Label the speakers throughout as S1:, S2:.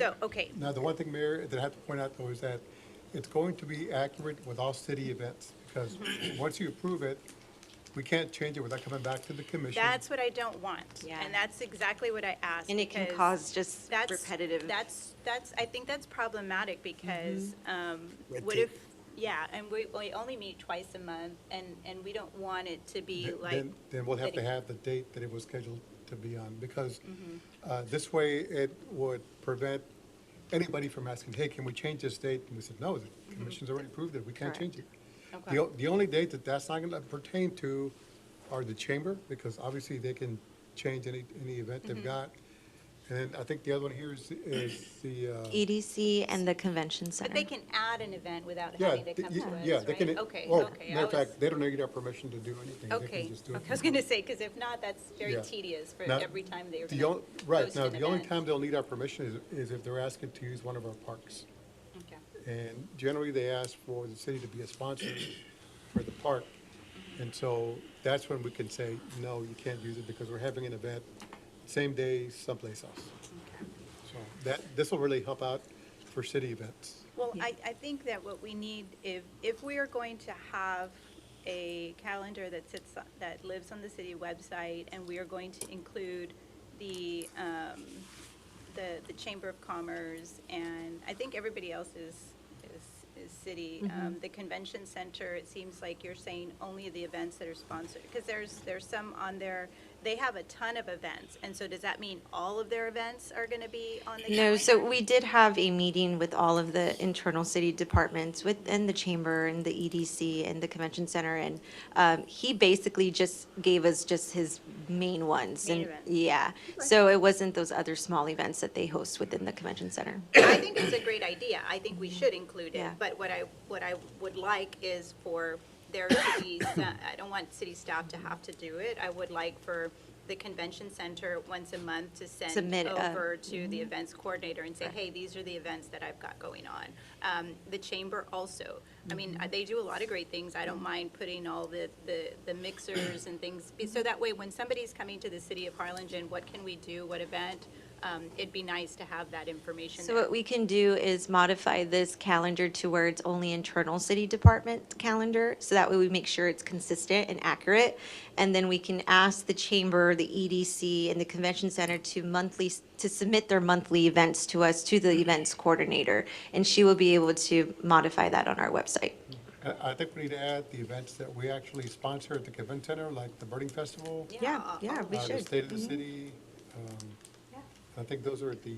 S1: So, okay,
S2: Now, the one thing, Mayor, that I have to point out though is that it's going to be accurate with all city events because once you approve it, we can't change it without coming back to the commission.
S1: that's what I don't want.
S3: Yeah.
S1: And that's exactly what I asked.
S3: And it can
S1: because
S3: cause just
S1: that's-
S3: repetitive-
S1: That's, that's, I think that's problematic because,
S3: Mm-hmm.
S1: um,
S4: Red
S1: what
S4: tape.
S1: if, yeah, and we, we only meet twice a month and, and we don't want it to be
S2: Th-
S1: like.
S2: Then, then we'll have to
S1: that- Mm-hmm.
S2: have the date that it was scheduled to be on, because uh, this way it would prevent anybody from asking, hey, can we change this date? And we said, no, the
S1: Mm-hmm.
S2: commission's already approved it, we can't change it. The, o- the only date that that's not going to pertain to are the chamber, because obviously they can change any, any event they've
S1: Mm-hmm.
S2: got. And then I think the other one here is, is the, uh,
S5: EDC and the convention center.
S1: But they can add an event without
S2: yeah,
S1: having to
S2: th-
S1: come to us,
S2: y-
S1: right?
S2: yeah, they can,
S1: Okay,
S2: oh,
S1: okay. I
S2: matter of
S1: was-
S2: fact, they don't need our permission to do anything. They can
S1: Okay,
S2: just do it
S1: okay, I
S2: from
S1: was gonna say, because if not, that's very
S2: Yeah.
S1: tedious for
S2: Now,
S1: every time they're
S2: The
S1: gonna
S2: only, right,
S1: host
S2: now,
S1: an
S2: the only
S1: event.
S2: time they'll need our permission is, is if they're asking to use one of our parks.
S1: Okay.
S2: And generally, they ask for the city to be a sponsor for the park. And so that's when we can say, no, you can't use it because we're having an event same day someplace else. So that, this will really help out for city events.
S1: Well, I, I think that what we need, if, if we are going to have a calendar that sits, on- that lives on the city website, and we are going to include the, um, the, the Chamber of Commerce, and I think everybody else is, is, is city.
S5: Mm-hmm.
S1: Um, the convention center, it seems like you're saying only the events that are sponsored, because there's, there's some on there, they have a ton of events, and so does that mean all of their events are gonna be on the calendar?
S5: No, so we did have a meeting with all of the internal city departments within the chamber and the EDC and the convention center. And um, he basically just gave us just his main ones.
S1: Main
S5: and-
S1: events.
S5: Yeah, so it wasn't those other small events that they host within the convention center.
S1: I think it's a great idea. I think we should include it,
S5: Yeah.
S1: but what I, what I would like is for there to be, some- I don't want city staff to have to do it. I would like for the convention center once a month to send
S5: Submit a- Mm-hmm.
S1: over to the events coordinator and say, hey, these are the events that I've got going on. Um, The chamber also. I mean,
S5: Mm-hmm.
S1: uh, they do a lot of great things. I don't mind putting all the, the the mixers and things, be- so that way, when somebody's coming to the city of Harlingen, what can we do, what event? Um, It'd be nice to have that information
S5: So
S1: there.
S5: what we can do is modify this calendar to where it's only internal city department calendar, so that way we make sure it's consistent and accurate. And then we can ask the chamber, the EDC, and the convention center to monthly, to submit their monthly events to us, to the events coordinator. And she will be able to modify that on our website.
S2: I, I think we need to add the events that we actually sponsor at the convention center, like the Birding Festival.
S5: Yeah,
S1: uh,
S5: yeah,
S1: uh,
S5: we
S2: uh, The
S5: should. Mm-hmm.
S2: State of the City. um, I think those are the,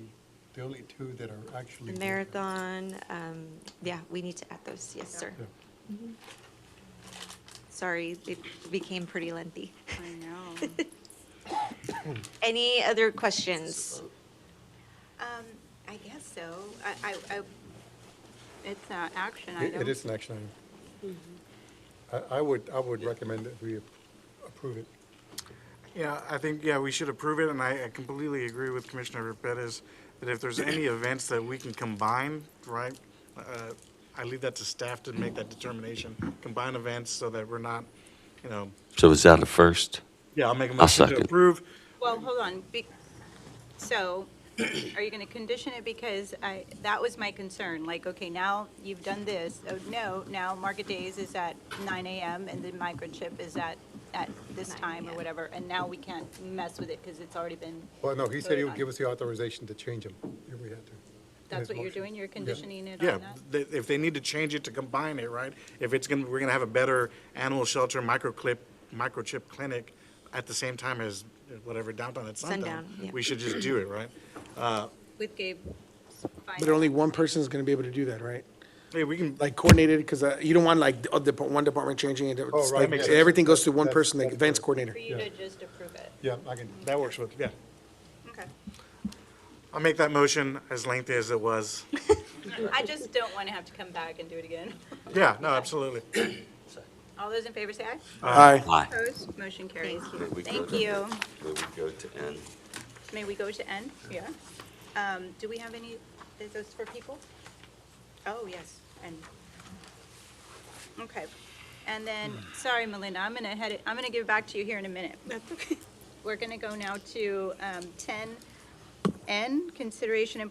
S2: the only two that are actually.
S5: The marathon, um, yeah, we need to add those, yes, sir.
S2: Yeah.
S5: Sorry, it became pretty lengthy.
S1: I know.
S5: Any other questions?
S1: Um, I guess so. I, I, I- it's an action
S2: It
S1: item.
S2: it is an action item. I, I would, I would recommend that we approve it.
S4: Yeah, I think, yeah, we should approve it, and I I completely agree with Commissioner Perez, that if there's any events that we can combine, right, uh, I leave that to staff to make that determination, combine events so that we're not, you know,
S6: So is that a first?
S4: yeah, I'll make a motion to
S6: second.
S4: approve.
S1: Well, hold on. Be- So are you going to condition it? Because I, that was my concern. Like, okay, now you've done this. Oh, no, now market days is at nine AM and the microchip is at, at this
S5: 9,
S1: time or
S5: yeah.
S1: whatever. And now we can't mess with it because it's already been,
S2: Well, no, he said he
S1: Voted
S2: would
S1: on.
S2: give us the authorization to change them if we had to.
S1: that's
S2: his
S1: what you're
S2: motion.
S1: doing? You're conditioning it
S4: Yeah,
S1: on that?
S4: th- if they need to change it to combine it, right? If it's gonna, we're gonna have a better animal shelter microclip, microchip clinic at the same time as whatever downtown at sundown.
S5: Sundown, yeah.
S4: We should just do it, right?
S1: With Gabe's
S7: But only one person is going to be able to do that, right?
S4: Hey, we can,
S7: Like coordinated, because you don't want like the other depart- one department changing it.
S2: Oh,
S7: It's
S2: right,
S7: like
S2: makes sense.
S7: Everything goes to one
S2: That's-
S7: person, like
S2: that's
S7: events
S2: correct.
S7: coordinator.
S1: for you to just approve it.
S2: Yeah, I can,
S4: that works with, yeah.
S1: Okay.
S4: I'll make that motion as lengthy as it was.
S1: I just don't want to have to come back and do it again.
S4: Yeah, no, absolutely.
S1: All those in favor say aye.
S7: Aye.
S6: Aye.
S1: Opposed, motion carries.
S6: May we go
S1: Thank
S6: to-
S1: you.
S6: May we go to N?
S1: May we go to N? Yeah. Um, do we have any, is this for people? Oh, yes, N. Okay. And then, sorry, Melinda, I'm gonna head, it. I'm gonna give it back to you here in a minute. That's okay. We're gonna go now to, um, ten N, consideration and